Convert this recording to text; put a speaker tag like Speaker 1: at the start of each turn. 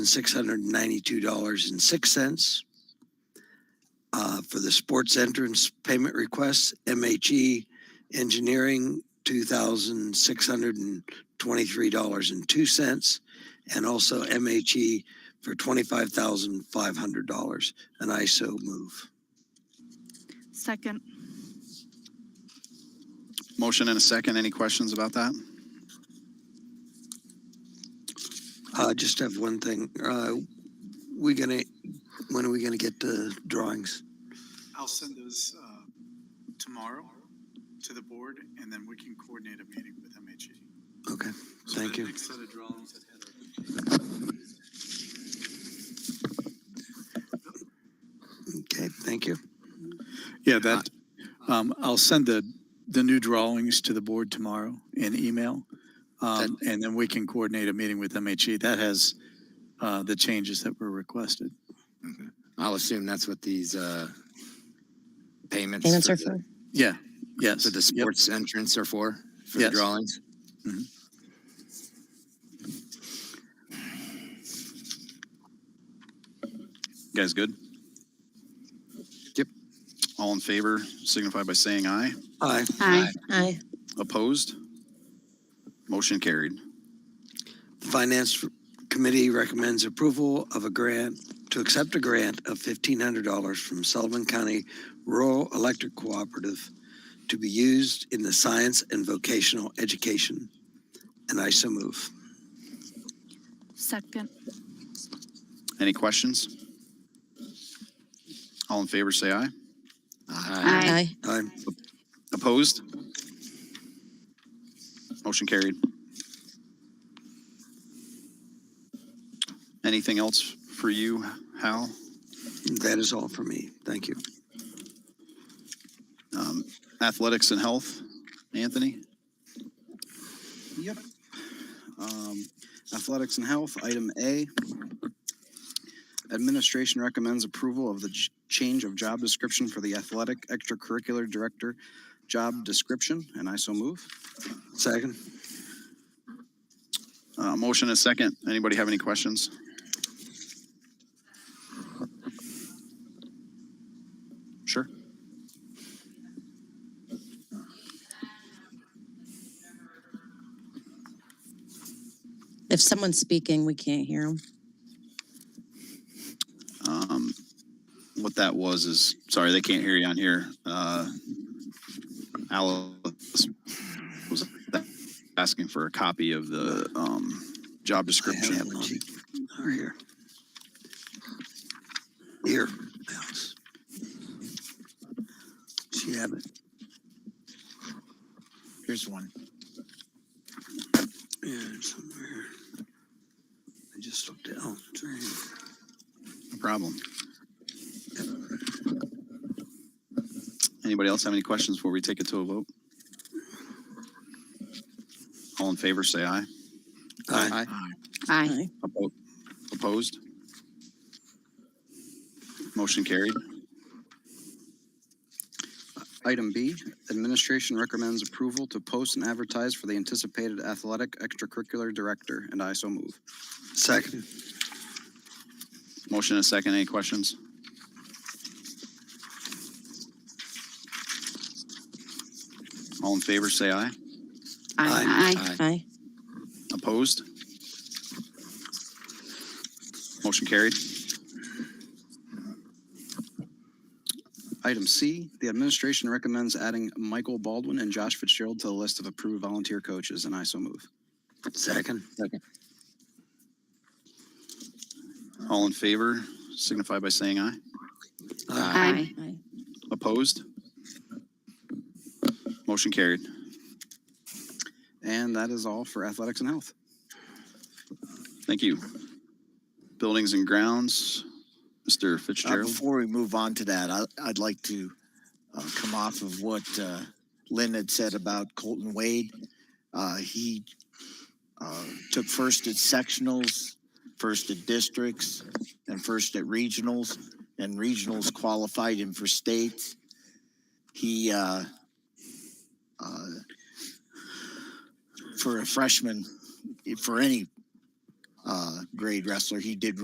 Speaker 1: six hundred and ninety-two dollars and six cents. Uh, for the sports entrance payment request, MHE Engineering, two thousand six hundred and twenty-three dollars and two cents. And also MHE for twenty-five thousand five hundred dollars, and I so move.
Speaker 2: Second,
Speaker 3: Motion and a second. Any questions about that?
Speaker 1: Uh, just have one thing, uh, we gonna, when are we gonna get the drawings?
Speaker 4: I'll send those uh, tomorrow to the board, and then we can coordinate a meeting with MHE.
Speaker 1: Okay, thank you.
Speaker 4: Next set of drawings that Heather-
Speaker 1: Okay, thank you.
Speaker 4: Yeah, that, um, I'll send the, the new drawings to the board tomorrow in email. Um, and then we can coordinate a meeting with MHE. That has, uh, the changes that were requested.
Speaker 5: I'll assume that's what these uh, payments.
Speaker 6: Payments are
Speaker 5: the-
Speaker 6: for,
Speaker 4: Yeah, yes.
Speaker 5: For the
Speaker 4: Yep.
Speaker 5: sports entrance are for, for the
Speaker 4: Yes.
Speaker 5: drawings?
Speaker 3: You guys good?
Speaker 5: Yep.
Speaker 3: All in favor signify by saying aye.
Speaker 1: Aye.
Speaker 2: aye,
Speaker 6: aye,
Speaker 3: Opposed? Motion carried.
Speaker 1: The Finance Committee recommends approval of a grant, to accept a grant of $1,500 from Sullivan County Rural Electric Cooperative to be used in the science and vocational education. And I so move.
Speaker 2: second,
Speaker 3: Any questions? All in favor say aye.
Speaker 5: Aye.
Speaker 2: Aye.
Speaker 6: aye,
Speaker 1: Aye.
Speaker 3: Opposed? Motion carried. Anything else for you, Hal?
Speaker 1: That is all for me. Thank you.
Speaker 3: Um, Athletics and health, Anthony?
Speaker 7: Yep. Um, Athletics and Health, item A. Administration recommends approval of the j- change of job description for the athletic extracurricular director job description, and I so move.
Speaker 1: Second?
Speaker 3: Uh, motion and a second. Anybody have any questions? Sure.
Speaker 6: if someone's speaking, we can't hear them.
Speaker 3: Um, what that was is, sorry, they can't hear you on here. Uh, Alice was asking for a copy of the, um, job
Speaker 1: I have
Speaker 3: description.
Speaker 1: one. Over Here. Here. Alice. She have it.
Speaker 7: Here's one.
Speaker 1: Yeah, it's somewhere. I just looked at, oh, it's right here.
Speaker 3: No problem. Anybody else have any questions before we take it to a vote? All in favor, say aye.
Speaker 1: Aye.
Speaker 2: aye,
Speaker 6: Aye.
Speaker 3: Oppo- Opposed? Motion carried.
Speaker 7: Item B, administration recommends approval to post and advertise for the anticipated athletic extracurricular director, and I so move.
Speaker 1: Second?
Speaker 3: Motion and a second. Any questions? All in favor, say aye.
Speaker 1: Aye.
Speaker 2: aye,
Speaker 6: Aye,
Speaker 3: Opposed? Motion carried.
Speaker 7: Item C, the administration recommends adding Michael Baldwin and Josh Fitzgerald to the list of approved volunteer coaches, and I so move.
Speaker 1: Second?
Speaker 3: All in favor, signify by saying aye.
Speaker 1: Aye.
Speaker 2: aye,
Speaker 6: aye,
Speaker 3: Opposed? Motion carried.
Speaker 7: And that is all for athletics and health.
Speaker 3: Thank you. Buildings and grounds, Mr.
Speaker 8: Uh,
Speaker 3: Fitzgerald.
Speaker 8: Before we move on to that, I, I'd like to uh, come off of what uh, Lynn had said about Colton Wade. Uh, he uh, took first at sectionals, first at districts, and first at regionals, and regionals qualified him for states. He, uh, uh, for a freshman, for any uh, grade wrestler. He did